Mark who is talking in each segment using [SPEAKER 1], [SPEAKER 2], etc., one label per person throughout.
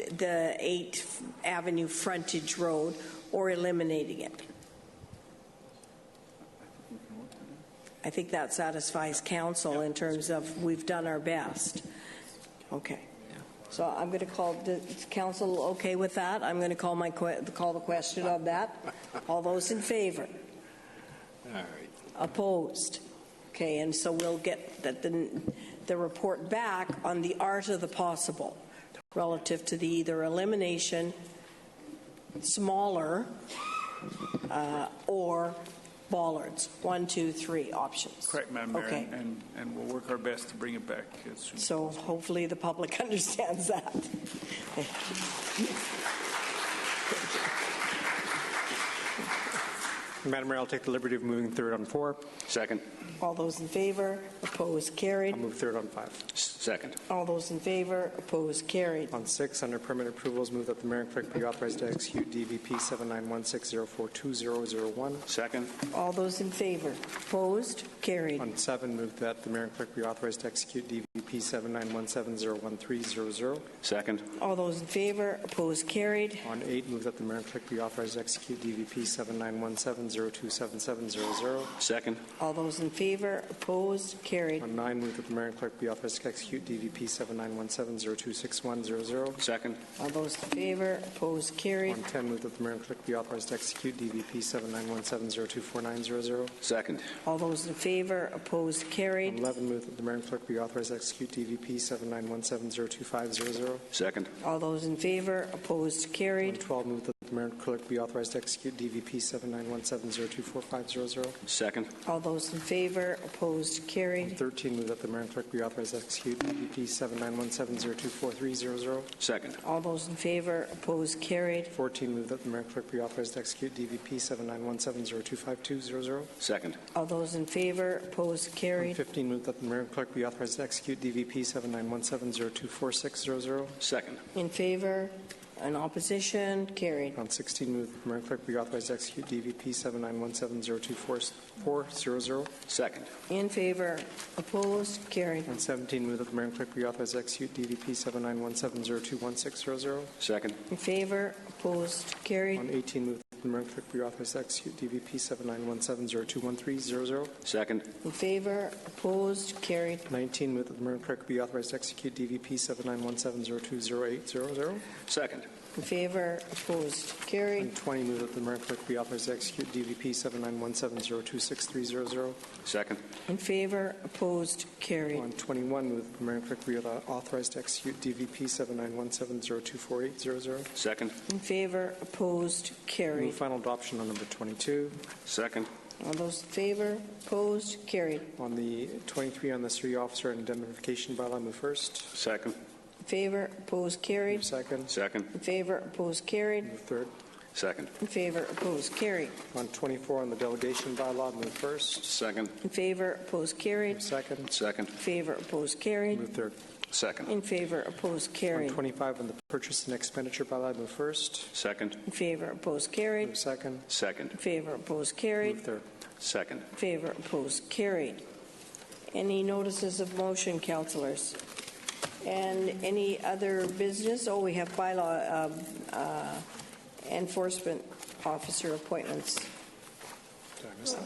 [SPEAKER 1] the 8th Avenue frontage road or eliminating it. I think that satisfies council in terms of we've done our best. Okay. So I'm going to call, the council okay with that? I'm going to call my, que- call the question on that. All those in favor?
[SPEAKER 2] All right.
[SPEAKER 1] Opposed? Okay, and so we'll get the- the, the report back on the art of the possible relative to the either elimination, smaller, uh, or bollards. One, two, three options.
[SPEAKER 3] Correct, Madam Mayor,
[SPEAKER 1] Okay.
[SPEAKER 3] and- and, and we'll work our best to bring it back as soon as
[SPEAKER 1] So hopefully the public understands that. Thank you.
[SPEAKER 4] Madam Mayor, I'll take the liberty of moving third on four.
[SPEAKER 2] Second.
[SPEAKER 1] All those in favor, opposed, carried.
[SPEAKER 4] I'll move third on five.
[SPEAKER 2] S- Second.
[SPEAKER 1] All those in favor, opposed, carried.
[SPEAKER 4] On six, under permit approvals, move that the mayor and clerk be authorized to execute DVP 7916042001.
[SPEAKER 2] Second.
[SPEAKER 1] All those in favor, opposed, carried.
[SPEAKER 4] On seven, move that the mayor and clerk be authorized to execute DVP 79170130.
[SPEAKER 2] Second.
[SPEAKER 1] All those in favor, opposed, carried.
[SPEAKER 4] On eight, move that the mayor and clerk be authorized to execute DVP 7917027700.
[SPEAKER 2] Second.
[SPEAKER 1] All those in favor, opposed, carried.
[SPEAKER 4] On nine, move that the mayor and clerk be authorized to execute DVP 7917026100.
[SPEAKER 2] Second.
[SPEAKER 1] All those in favor, opposed, carried.
[SPEAKER 4] On 10, move that the mayor and clerk be authorized to execute DVP 7917024900.
[SPEAKER 2] Second.
[SPEAKER 1] All those in favor, opposed,
[SPEAKER 4] On
[SPEAKER 1] carried.
[SPEAKER 4] 11, move that the mayor and clerk be authorized to execute DVP 7917022500.
[SPEAKER 2] Second.
[SPEAKER 1] All those in favor, opposed,
[SPEAKER 4] On
[SPEAKER 1] carried.
[SPEAKER 4] 12, move that the mayor and clerk be authorized to execute DVP 7917024500.
[SPEAKER 2] Second.
[SPEAKER 1] All those in favor, opposed,
[SPEAKER 4] On
[SPEAKER 1] carried.
[SPEAKER 4] 13, move that the mayor and clerk be authorized to execute DVP 7917024300.
[SPEAKER 2] Second.
[SPEAKER 1] All those in favor, opposed, carried.
[SPEAKER 4] 14, move that the mayor and clerk be authorized to execute DVP 7917025200.
[SPEAKER 2] Second.
[SPEAKER 1] All those in favor, opposed,
[SPEAKER 4] On
[SPEAKER 1] carried.
[SPEAKER 4] 15, move that the mayor and clerk be authorized to execute DVP 7917024600.
[SPEAKER 2] Second.
[SPEAKER 1] In favor, in opposition, carried.
[SPEAKER 4] On 16, move that the mayor and clerk be authorized to execute DVP 7917024400.
[SPEAKER 2] Second.
[SPEAKER 1] In favor, opposed, carried.
[SPEAKER 4] On 17, move that the mayor and clerk be authorized to execute DVP 7917021600.
[SPEAKER 2] Second.
[SPEAKER 1] In favor, opposed, carried.
[SPEAKER 4] On 18, move that the mayor and clerk be authorized to execute DVP 7917021300.
[SPEAKER 2] Second.
[SPEAKER 1] In favor, opposed, carried.
[SPEAKER 4] 19, move that the mayor and clerk be authorized to execute DVP 7917020800.
[SPEAKER 2] Second.
[SPEAKER 1] In favor, opposed,
[SPEAKER 4] And
[SPEAKER 1] carried.
[SPEAKER 4] 20, move that the mayor and clerk be authorized to execute DVP 7917026300.
[SPEAKER 2] Second.
[SPEAKER 1] In favor, opposed, carried.
[SPEAKER 4] On 21, move that the mayor and clerk be authorized to execute DVP 7917024800.
[SPEAKER 2] Second.
[SPEAKER 1] In favor, opposed,
[SPEAKER 4] Move
[SPEAKER 1] carried.
[SPEAKER 4] final adoption on number 22.
[SPEAKER 2] Second.
[SPEAKER 1] All those in favor, opposed, carried.
[SPEAKER 4] On the 23, on the city officer and indemnification bylaw, move first.
[SPEAKER 2] Second.
[SPEAKER 1] In favor, opposed,
[SPEAKER 4] Move
[SPEAKER 1] carried.
[SPEAKER 4] second.
[SPEAKER 2] Second.
[SPEAKER 1] In favor, opposed, carried.
[SPEAKER 4] Move third.
[SPEAKER 2] Second.
[SPEAKER 1] In favor, opposed, carried.
[SPEAKER 4] On 24, on the delegation bylaw, move first.
[SPEAKER 2] Second.
[SPEAKER 1] In favor, opposed,
[SPEAKER 4] Move
[SPEAKER 1] carried.
[SPEAKER 4] second.
[SPEAKER 2] Second.
[SPEAKER 1] In favor, opposed, carried.
[SPEAKER 4] Move third.
[SPEAKER 2] Second.
[SPEAKER 1] In favor, opposed,
[SPEAKER 4] On
[SPEAKER 1] carried.
[SPEAKER 4] 25, on the purchase and expenditure bylaw, move first.
[SPEAKER 2] Second.
[SPEAKER 1] In favor, opposed, carried.
[SPEAKER 4] Move second.
[SPEAKER 2] Second.
[SPEAKER 1] In favor, opposed,
[SPEAKER 4] Move
[SPEAKER 1] carried.
[SPEAKER 4] third.
[SPEAKER 2] Second.
[SPEAKER 1] In favor, opposed, carried. Any notices of motion, councilors? And any other business? Oh, we have bylaw um, uh, enforcement officer appointments.
[SPEAKER 4] Did I miss that?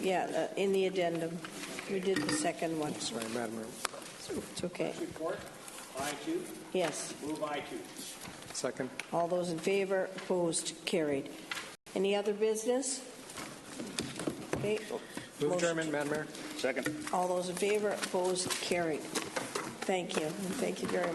[SPEAKER 1] Yeah, uh, in the addendum. You did the second one.
[SPEAKER 4] I'm Sorry, Madam Mayor.
[SPEAKER 1] It's okay.
[SPEAKER 5] Report, I two,
[SPEAKER 1] Yes.
[SPEAKER 5] move I two.
[SPEAKER 4] Second.
[SPEAKER 1] All those in favor, opposed, carried. Any other business? Okay.
[SPEAKER 4] Move
[SPEAKER 1] Motion-
[SPEAKER 4] adjournment, Madam Mayor.
[SPEAKER 2] Second.
[SPEAKER 1] All those in favor, opposed, carried. Thank you. Thank you very much.